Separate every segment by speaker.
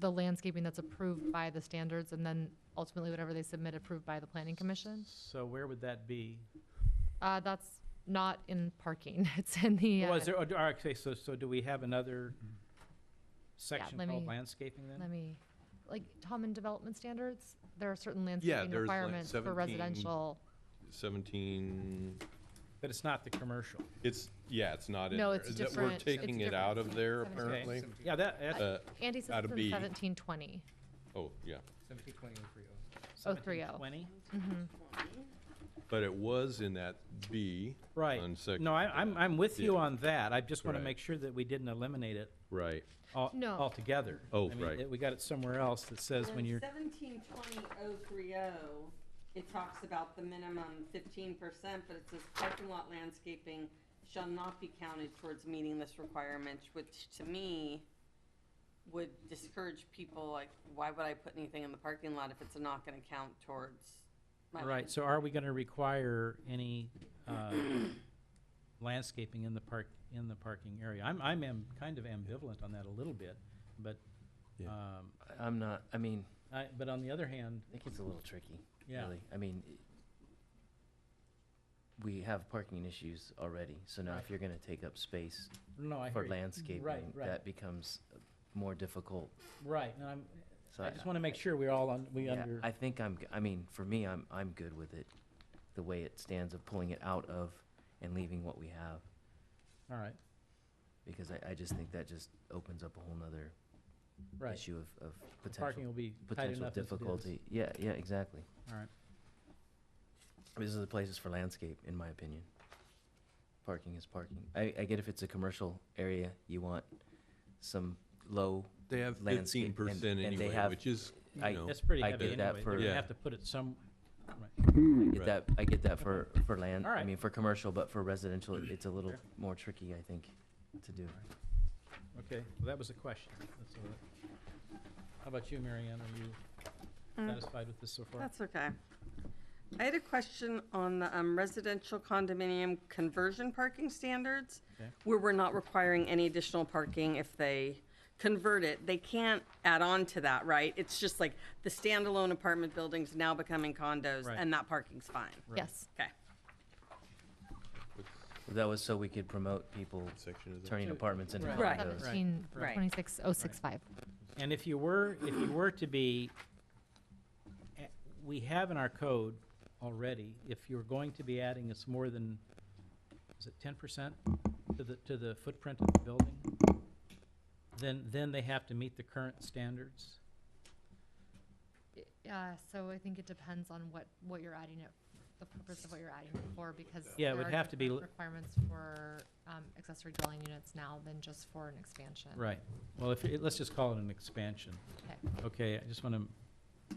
Speaker 1: the landscaping that's approved by the standards and then ultimately whatever they submit approved by the planning commission.
Speaker 2: So where would that be?
Speaker 1: Uh, that's not in parking, it's in the,
Speaker 2: Well,
Speaker 1: uh,
Speaker 2: is there, oh, d- all right, okay, so, so do we have another section
Speaker 1: let
Speaker 2: called
Speaker 1: me-
Speaker 2: landscaping then?
Speaker 1: let me, like, Tom, in development standards, there are certain
Speaker 3: Yeah,
Speaker 1: landscaping
Speaker 3: there's like
Speaker 1: requirements for
Speaker 3: 17.
Speaker 1: residential.
Speaker 3: 17,
Speaker 2: But it's not the commercial.
Speaker 3: it's, yeah, it's not in there.
Speaker 1: No, it's
Speaker 3: Is that
Speaker 1: different- it's
Speaker 3: We're taking it out
Speaker 1: different.
Speaker 3: of there
Speaker 1: Okay.
Speaker 3: apparently.
Speaker 2: Yeah, that, that's
Speaker 3: Uh,
Speaker 1: Andy says
Speaker 3: Gotta
Speaker 1: it's in
Speaker 3: be.
Speaker 1: seventeen twenty.
Speaker 3: Oh, yeah.
Speaker 4: Seventeen twenty oh three oh.
Speaker 1: Oh, three oh.
Speaker 2: 1720.
Speaker 3: But it was in that B.
Speaker 2: Right.
Speaker 3: On second.
Speaker 2: No, I, I'm, I'm with you
Speaker 3: Yeah.
Speaker 2: on that. I just want to
Speaker 3: Right.
Speaker 2: make sure that we didn't eliminate it
Speaker 3: Right.
Speaker 2: al-
Speaker 1: No.
Speaker 2: altogether.
Speaker 3: Oh,
Speaker 2: I mean,
Speaker 3: right.
Speaker 2: it- We got it somewhere else that says when you're,
Speaker 5: Seventeen twenty oh three oh, it talks about the minimum fifteen percent, but it says parking lot landscaping shall not be counted towards meeting this requirement, which to me would discourage people, like, why would I put anything in the parking lot if it's not gonna count towards my
Speaker 2: right, so are we going to require any uh, landscaping in the park, in the parking area? I'm, I'm am- kind of ambivalent on that a little bit, but,
Speaker 3: Yeah.
Speaker 2: um,
Speaker 6: I'm not, I mean,
Speaker 2: I, but on the other hand,
Speaker 6: I think it's a little tricky,
Speaker 2: Yeah.
Speaker 6: really. I mean, i- we have parking issues already, so now
Speaker 2: Right.
Speaker 6: if you're gonna take up space
Speaker 2: no, I hear
Speaker 6: for
Speaker 2: you.
Speaker 6: landscaping,
Speaker 2: right.
Speaker 6: that becomes uh, more difficult.
Speaker 2: Right, and I'm,
Speaker 6: So
Speaker 2: I just want to make sure we're all on, we
Speaker 6: yeah,
Speaker 2: under,
Speaker 6: I think I'm, g- I mean, for me, I'm, I'm good with it, the way it stands of pulling it out of and leaving what we have,
Speaker 2: all right,
Speaker 6: because I, I just think that just opens up a whole nother
Speaker 2: right.
Speaker 6: issue of, of
Speaker 2: The Parking
Speaker 6: potential,
Speaker 2: will be tight
Speaker 6: potential
Speaker 2: enough as it is.
Speaker 6: difficulty. Yeah, yeah, exactly.
Speaker 2: All right.
Speaker 6: These are the places for landscape, in my opinion. Parking is parking. I, I get if it's a commercial area, you want some low,
Speaker 3: They have
Speaker 6: Landscape,
Speaker 3: fifteen
Speaker 6: and-
Speaker 3: percent
Speaker 6: and they
Speaker 3: anyway,
Speaker 6: have-
Speaker 3: which is, you
Speaker 6: I-
Speaker 3: know,
Speaker 2: That's pretty
Speaker 6: I
Speaker 2: heavy
Speaker 6: did that
Speaker 2: anyway. They're gonna
Speaker 3: for-
Speaker 2: have to put it some,
Speaker 6: I
Speaker 3: Right.
Speaker 6: get that, I get that for, for land, I
Speaker 2: Alright.
Speaker 6: mean, for commercial, but for residential, it- it's a little
Speaker 2: Fair.
Speaker 6: more tricky, I think, to do.
Speaker 2: okay, well, that was a question. That's all right. How about you, Mary Ann? Are you satisfied with this so far?
Speaker 5: That's okay. I had a question on the um, residential condominium conversion parking standards,
Speaker 2: Okay.
Speaker 5: where we're not requiring any additional parking if they convert it. They can't add on to that, right? It's just like the standalone apartment buildings now becoming condos,
Speaker 2: Right.
Speaker 5: and that parking's fine.
Speaker 1: Yes,
Speaker 5: Okay.
Speaker 6: That was so we could promote people
Speaker 3: section is that?
Speaker 6: turning apartments into
Speaker 2: Right.
Speaker 5: Right.
Speaker 6: condos.
Speaker 1: seventeen
Speaker 5: Right.
Speaker 1: twenty-six oh six five.
Speaker 2: And if you were, if you were to be, eh, we have in our code already, if you're going to be adding, it's more than, is it ten percent to the, to the footprint of the building? Then, then they have to meet the current standards?
Speaker 1: Yeah, so I think it depends on what, what you're adding it, the purpose of what you're adding it for, because.
Speaker 2: Yeah, it
Speaker 1: there
Speaker 2: would
Speaker 1: are
Speaker 2: have to be
Speaker 1: different
Speaker 2: l-
Speaker 1: Requirements for, um, accessory dwelling units now than just for an expansion.
Speaker 2: Right. Well, if, it- let's just call it an expansion.
Speaker 1: Okay.
Speaker 2: Okay, I just want to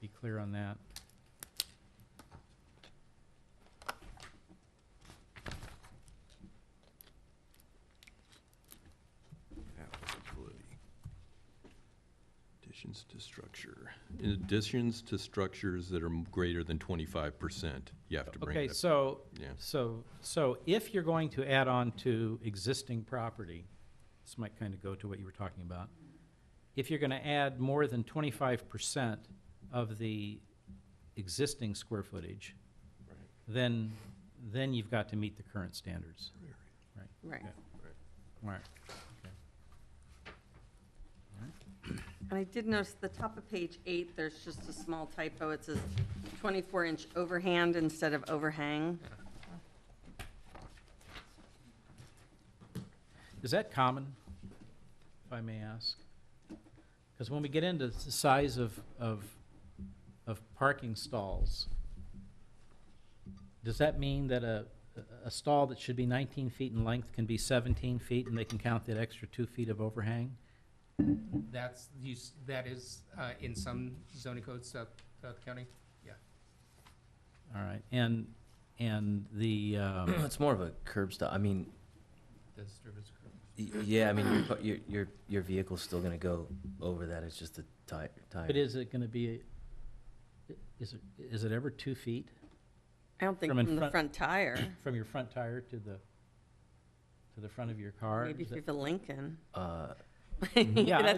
Speaker 2: be clear on that.
Speaker 3: Applicability. Additions to structure. In Additions to structures that are m- greater than twenty-five percent, you have to bring
Speaker 2: Okay,
Speaker 3: it up.
Speaker 2: so,
Speaker 3: Yeah.
Speaker 2: so, so if you're going to add on to existing property, this might kind of go to what you were talking about. If you're going to add more than twenty-five percent of the existing square footage,
Speaker 3: Right.
Speaker 2: then, then you've got to meet the current standards.
Speaker 5: Right.
Speaker 2: Yeah. Right.
Speaker 5: And I did notice the top of page eight, there's just a small typo. It says 24-inch overhand instead of overhang.
Speaker 2: Is that common, if I may ask? Because when we get into the size of, of, of parking stalls, does that mean that a, a stall that should be nineteen feet in length can be seventeen feet and they can count that extra two feet of overhang?
Speaker 4: That's, you, s- that is, uh, in some zoning codes throughout, throughout the county, yeah.
Speaker 2: All right, and, and the, um,
Speaker 6: It's more of a curb stop, I mean,
Speaker 4: The disturbance occur-
Speaker 6: y- yeah, I mean, your car- your, your, your vehicle's still gonna go over that, it's just a tire, tire.
Speaker 2: but is it gonna be, a- is it, is it ever two feet
Speaker 5: I don't think
Speaker 2: From in
Speaker 5: from the
Speaker 2: front-
Speaker 5: front tire,
Speaker 2: from your front tire to the, to the front of your car?
Speaker 5: maybe
Speaker 2: Is
Speaker 5: if
Speaker 2: that-
Speaker 5: you have a Lincoln.
Speaker 6: Uh,
Speaker 5: Mm-hmm. Yeah, I-